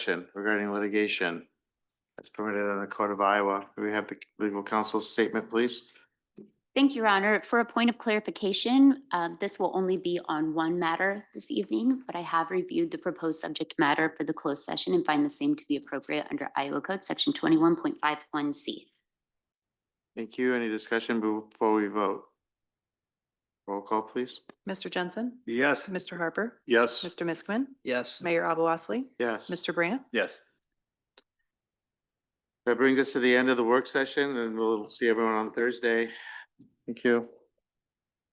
action regarding litigation as permitted in the Court of Iowa. May We have the legal counsel's statement, please. Thank you, Your Honor. For a point of clarification, um, this will only be on one matter this evening, but I have reviewed the proposed subject matter for the closed session and find the same to be appropriate under Iowa Code Section 21.51C. Thank you. Any discussion before we vote? Roll call, please. Mr. Jensen? Yes. Mr. Harper? Yes. Mr. Miskman? Yes. Mayor Abou Osley? Yes. Mr. Brandt? Yes. That brings us to the end of the work session and we'll see everyone on Thursday. Thank you.